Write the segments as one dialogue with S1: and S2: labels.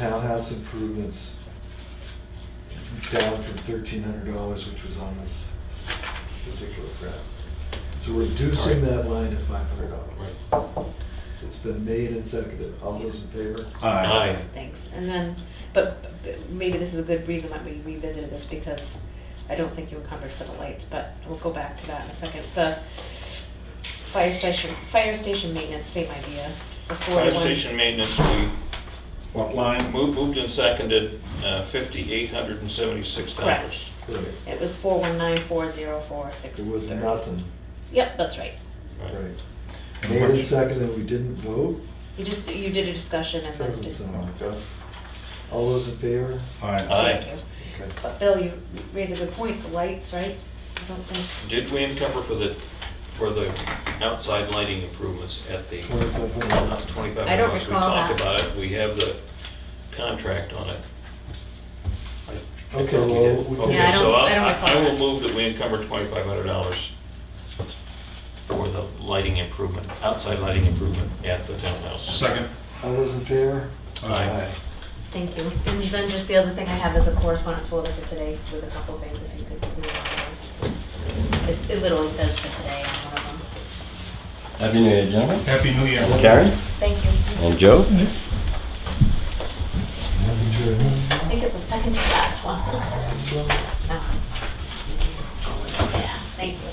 S1: townhouse improvements down from thirteen hundred dollars, which was on this particular graph. So we're reducing
S2: Right.
S1: that line to five hundred dollars. It's been made and seconded. All those in favor?
S2: Aye.
S3: Thanks, and then, but but maybe this is a good reason that we revisited this, because I don't think you encumbered for the lights, but we'll go back to that in a second. The fire station, fire station maintenance, same idea. the
S2: Fire
S3: 41
S2: station maintenance, we
S4: What line?
S2: moved moved and seconded uh, $5,876.
S3: Correct.
S1: Right.
S3: It was four one nine four zero four six.
S1: It was nothing,
S3: Yep, that's right.
S2: Right.
S1: right.
S4: And
S1: Made and
S4: which-
S1: seconded, we didn't vote?
S3: You just, you did a discussion and that's
S1: Doesn't
S3: just.
S1: sound like us. All those in favor?
S4: Aye.
S2: Aye.
S3: Thank you.
S1: Okay.
S3: But Bill, you raise a good point, the lights, right? I don't think,
S2: Did we encumber for the, for the outside lighting improvements at the
S1: Twenty-five hundred
S2: Not
S1: dollars.
S2: twenty-five
S3: I don't
S2: bucks, we
S3: recall
S2: talked about
S3: that.
S2: it, we have the contract on it. I- I
S1: Okay,
S2: thought we
S1: well,
S2: did.
S1: we-
S2: Okay,
S3: Yeah, I don't-
S2: so
S3: I don't recall
S2: I will
S3: that.
S2: move that we encumber twenty-five hundred dollars for the lighting improvement, outside lighting improvement at the townhouse.
S4: Second.
S1: All those in favor?
S2: Aye.
S3: thank you. And then just the other thing I have is a correspondence folder for today with a couple things, if you could read those. It, it literally says for today on one of them.
S5: Happy New Year, gentlemen.
S4: Happy New Year.
S5: Karen
S3: Thank you.
S1: Um,
S5: and Joe.
S1: Happy journeys.
S3: I think it's the second to last one. Uh-huh.
S1: This one?
S3: No. Yeah, thank you.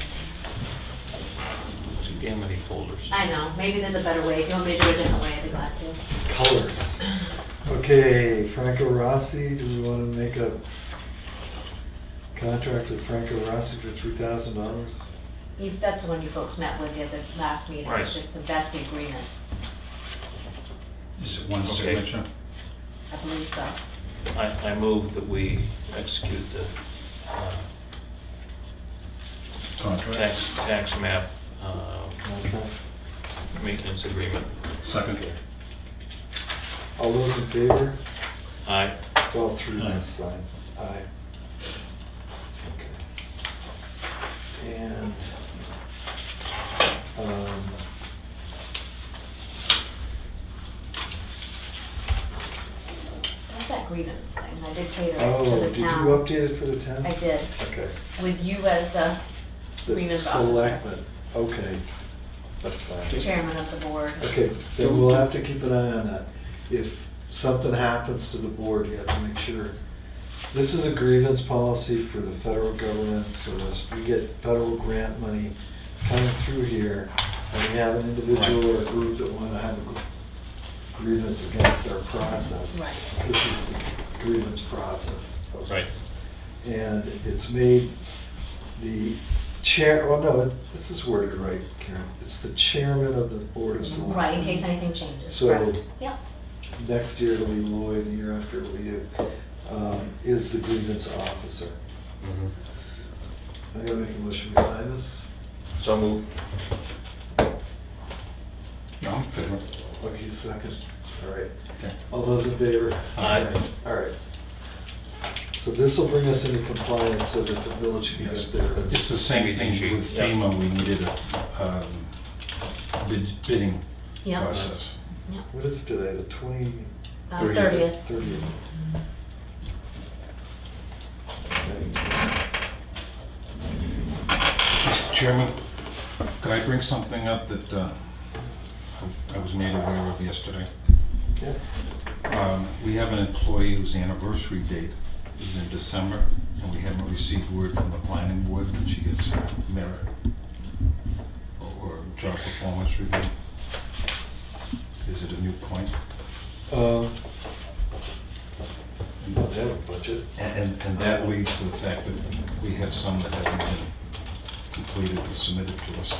S2: Too damn many folders.
S3: I know, maybe there's a better way. If you want me to do it a different way, I'd be glad to.
S1: Colors. Okay, Franco Rossi, do we want to make a contract with Franco Rossi for three thousand dollars?
S3: You, that's the one you folks met with the other, last meeting.
S2: Right.
S3: It's just, the- that's the agreement,
S4: Is it one
S2: Okay.
S4: signature?
S3: I believe so.
S2: I, I move that we execute the uh,
S4: Contract.
S2: tax, tax map uh,
S1: Contract.
S2: maintenance agreement.
S4: Second.
S1: All those in favor?
S2: Aye.
S1: It's all through
S4: Aye.
S1: this sign. Aye. Okay. And, um,
S3: That's that grievance thing. I did cater it to
S1: oh,
S3: the
S1: did you
S3: town.
S1: update it for the town?
S3: I did,
S1: Okay.
S3: with you as the
S1: The
S3: grievance officer,
S1: Selectmen, okay. That's fine.
S3: chairman of the board.
S1: Okay, then we'll have to keep an eye on that. If something happens to the board, you have to make sure. This is a grievance policy for the federal government, so as we get federal grant money coming through here, and we have an individual or a group that wanna have a gr- grievance against our process.
S3: Right.
S1: This is the grievance process.
S2: Right.
S1: And it's made the chair, well, no, it- this is worded right, Karen. It's the chairman of the Board of Selectmen.
S3: Right, in case anything changes,
S1: So-
S3: correct? Yep,
S1: Next year it'll be Lloyd, the year after it'll be you, um, is the grievance officer.
S2: Mhm.
S1: I gotta make a motion to sign this.
S2: So move.
S4: No, I'm favor.
S1: Okay, second. All right.
S4: Okay.
S1: All those in favor?
S2: Aye.
S1: All right. So this will bring us into compliance so that the village can
S4: Yes.
S1: get their.
S4: It's the same thing with
S2: Yeah.
S4: FEMA, we needed a um, bid- bidding
S3: yep.
S4: process.
S3: yep.
S1: What is today, the twenty,
S3: Uh,
S4: Thirtieth.
S3: Thirtieth,
S1: thirtieth?
S4: Mr. Chairman, could I bring something up that uh, I I was made aware of yesterday?
S1: Yeah.
S4: Um, We have an employee whose anniversary date is in December, and we haven't received word from the planning board that she gets her merit or- or job performance review. Is it a new point? Uh,
S1: Um, I don't have a budget.
S4: And- And, and that leads to the fact that we have some that haven't been completed or submitted to us.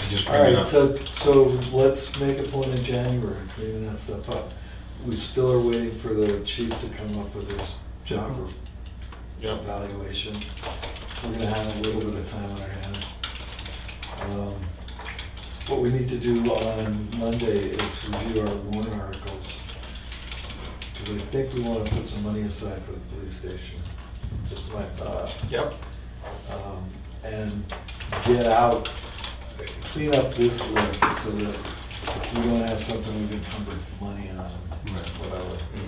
S4: I just
S1: All
S4: bring it
S1: right,
S4: up.
S1: so, so let's make a point in January, cleaning that stuff up. We still are waiting for the chief to come up with his
S4: Mm-hmm.
S1: job
S2: Yep.
S1: evaluations. We're gonna have a little bit of time on our hands. Um, What we need to do on Monday is review our warrant articles. Because I think we wanna put some money aside for the police station, just my thought
S2: Yep.
S1: um, and get out, clean up this list so that we don't have something we've encumbered money on,
S4: Right.
S1: whatever.
S2: Mhm.